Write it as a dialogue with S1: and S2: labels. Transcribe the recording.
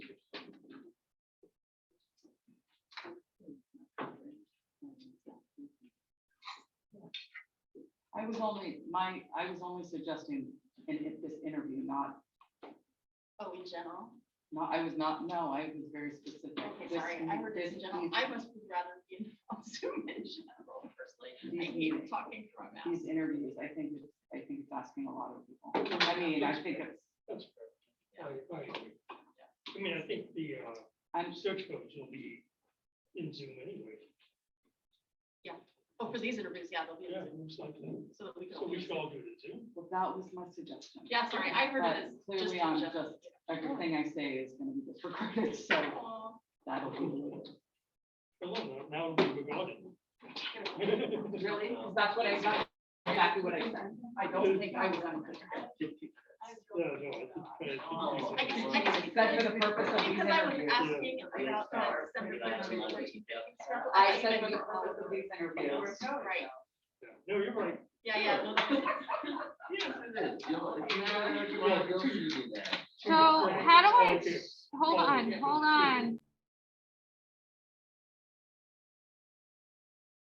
S1: I was only, my, I was only suggesting in in this interview, not,
S2: Oh, in general?
S1: no, I was not, no, I was very specific.
S2: Okay,
S1: This-
S2: sorry, I heard this in general.
S1: these-
S2: I must would rather be in- on Zoom in general personally. I
S1: These
S2: hate
S1: meetings.
S2: talking through a mask.
S1: These interviews, I think, it's- I think it's asking a lot of people. I mean, I think it's,
S3: That's fair. I, I agree. I mean, I think the, uh,
S1: I'm,
S3: search codes will be in Zoom anyway.
S2: Oh, for these interviews, yeah, they'll be,
S3: Yeah, it looks like that.
S2: so that we can.
S3: So we
S2: always-
S3: should all do it in Zoom.
S1: well, that was my suggestion.
S2: Yeah, sorry, I heard
S1: But
S2: it as. just
S1: Clearly,
S2: in
S1: I'm
S2: general.
S1: just, everything I say is gonna be disregarded, so
S2: Aw,
S1: that'll be.
S3: Hello, now it'll be regarded.
S1: Really? that's what I got, exactly what I said. I
S3: don't think I
S1: was.
S2: I
S3: No,
S2: was
S3: no,
S2: really-
S3: I
S2: I
S3: think.
S4: Oh.
S2: can- I can-
S1: That's for the purpose of these
S2: Because I was
S1: interviews.
S2: asking about that. separate relationship.
S1: I said for the purpose of these interviews.
S2: Right,
S3: No, you're right.
S2: yeah, yeah. no, no.
S5: Yes, it is. You know, if you really want to go, you do that.
S4: So how do I,
S3: Okay.
S4: hold
S3: Oh,
S4: on,
S3: yeah.
S4: hold on.